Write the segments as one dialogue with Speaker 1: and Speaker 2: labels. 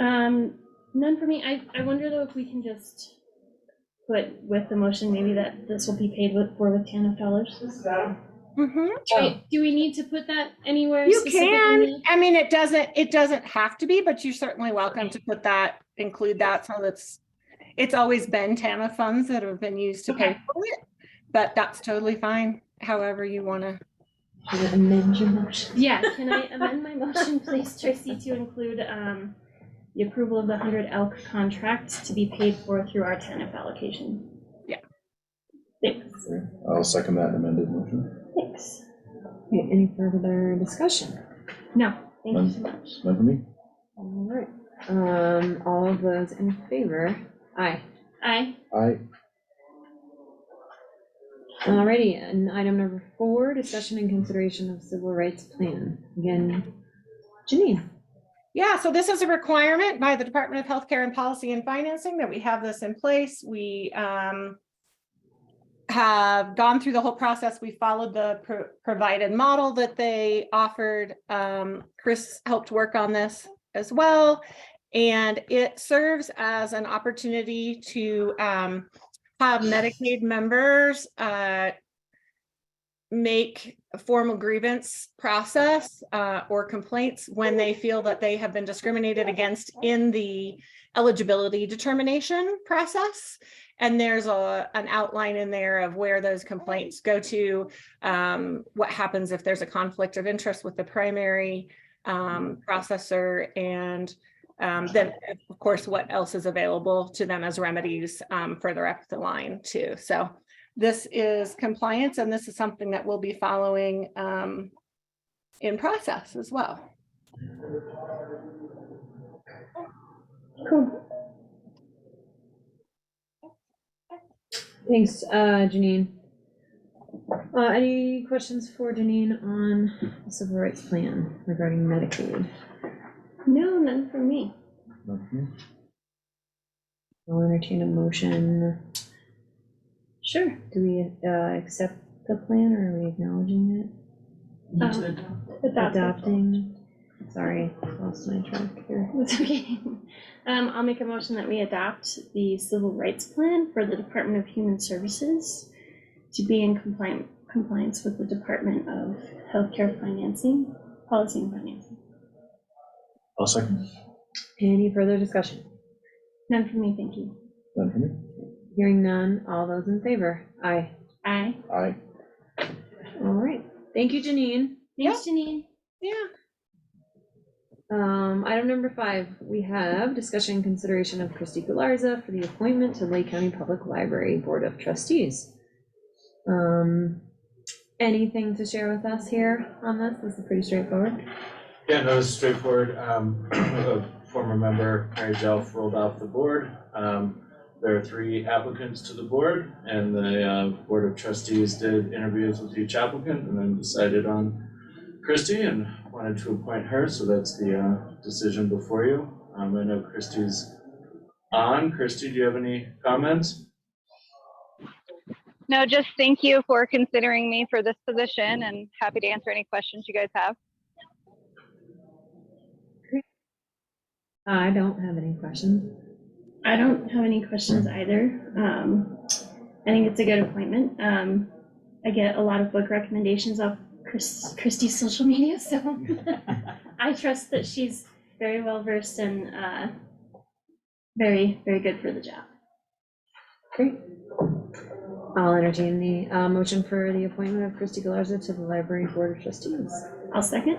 Speaker 1: Um, none for me. I, I wonder though if we can just put with the motion maybe that this will be paid with, for with TANF dollars.
Speaker 2: Mhm.
Speaker 1: Wait, Do we need to put that anywhere?
Speaker 2: You can,
Speaker 1: specifically?
Speaker 2: I mean, it doesn't, it doesn't have to be, but you're certainly welcome to put that, include that, so that's, it's always been TAMA funds that have been used to pay for it, but that's totally fine, however you want to.
Speaker 3: Amend your motion.
Speaker 1: Yeah, can I amend my motion, please, Tracy, to include, um, the approval of the hundred elk contract to be paid for through our TANF allocation?
Speaker 2: Yeah.
Speaker 1: Thanks,
Speaker 4: I'll second that amended motion.
Speaker 1: thanks.
Speaker 3: Okay, Any further discussion?
Speaker 1: No, thank you so much.
Speaker 4: None for me?
Speaker 3: All right, um, all of those in favor? Aye.
Speaker 1: Aye.
Speaker 4: Aye.
Speaker 3: Alrighty, and item number four, discussion and consideration of civil rights plan. Again, Janine.
Speaker 2: Yeah, so this is a requirement by the Department of Healthcare and Policy and Financing that we have this in place. We um, have gone through the whole process. We followed the pro- provided model that they offered. Um, Chris helped work on this as well. And it serves as an opportunity to um, have Medicaid members uh, make a formal grievance process uh, or complaints when they feel that they have been discriminated against in the eligibility determination process. And there's a, an outline in there of where those complaints go to, um, what happens if there's a conflict of interest with the primary um, processor and um, then, of course, what else is available to them as remedies um, further up the line too. So this is compliance and this is something that we'll be following um, in process as well.
Speaker 1: Cool.
Speaker 3: Thanks, uh, Janine. Uh, any questions for Janine on the civil rights plan regarding Medicaid?
Speaker 1: No, none for me.
Speaker 4: None for me?
Speaker 3: I'll entertain a motion.
Speaker 1: Sure.
Speaker 3: Do we, uh, accept the plan or are we acknowledging it?
Speaker 1: Um, Adopt.
Speaker 3: Adopting, sorry, lost my track here.
Speaker 1: That's okay. Um, I'll make a motion that we adopt the civil rights plan for the Department of Human Services to be in compliant, compliance with the Department of Healthcare Financing, Policy and Financing.
Speaker 4: I'll second.
Speaker 3: Any further discussion?
Speaker 1: None for me, thank you.
Speaker 4: None for me?
Speaker 3: Hearing none, all those in favor? Aye.
Speaker 1: Aye.
Speaker 4: Aye.
Speaker 3: All right, thank you, Janine.
Speaker 1: Thanks, Janine.
Speaker 2: Yeah.
Speaker 3: Um, item number five, we have discussion and consideration of Christy Galarza for the appointment to Lake County Public Library Board of Trustees. Um, anything to share with us here on this? This is pretty straightforward.
Speaker 5: Yeah, no, it's straightforward. Um, a former member, Mary Jelf, rolled off the board. Um, there are three applicants to the board, and the, uh, Board of Trustees did interviews with each applicant and then decided on Christie and wanted to appoint her, so that's the, uh, decision before you. Um, I know Christie's on. Christie, do you have any comments?
Speaker 6: No, just thank you for considering me for this position and happy to answer any questions you guys have.
Speaker 3: I don't have any questions.
Speaker 1: I don't have any questions either. Um, I think it's a good appointment. Um, I get a lot of book recommendations off Chris, Christie's social media, so I trust that she's very well versed and uh, very, very good for the job.
Speaker 3: Great. I'll entertain the, uh, motion for the appointment of Christy Galarza to the Library Board of Trustees.
Speaker 1: I'll second.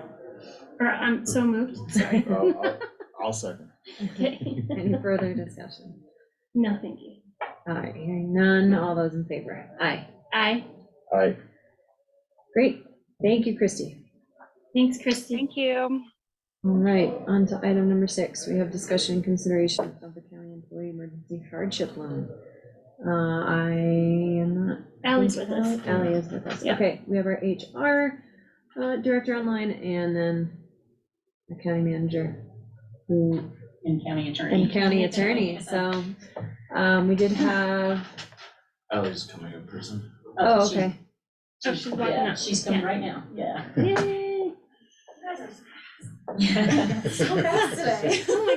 Speaker 1: Or I'm so moved. Sorry.
Speaker 4: I'll- I'll- I'll second.
Speaker 1: Okay.
Speaker 3: Any further discussion?
Speaker 1: No, thank you.
Speaker 3: All right, hearing none, all those in favor? Aye.
Speaker 1: Aye.
Speaker 4: Aye.
Speaker 3: Great, thank you, Christy.
Speaker 1: Thanks, Christy.
Speaker 6: Thank you.
Speaker 3: All right, on to item number six. We have discussion and consideration of the county employee emergency hardship loan. Uh, I am not.
Speaker 1: Ally's with us.
Speaker 3: Ally is with us.
Speaker 1: Yeah.
Speaker 3: Okay, we have our HR uh, director online and then the county manager who,
Speaker 7: and county attorney.
Speaker 3: and county attorney. So um, we did have,
Speaker 5: Ally's coming in person.
Speaker 3: oh,
Speaker 7: she-
Speaker 3: okay.
Speaker 1: Oh, she's walking
Speaker 7: Yeah,
Speaker 1: up.
Speaker 7: she's coming
Speaker 1: Yeah.
Speaker 7: right now, yeah.
Speaker 1: Yay.
Speaker 7: So fast today.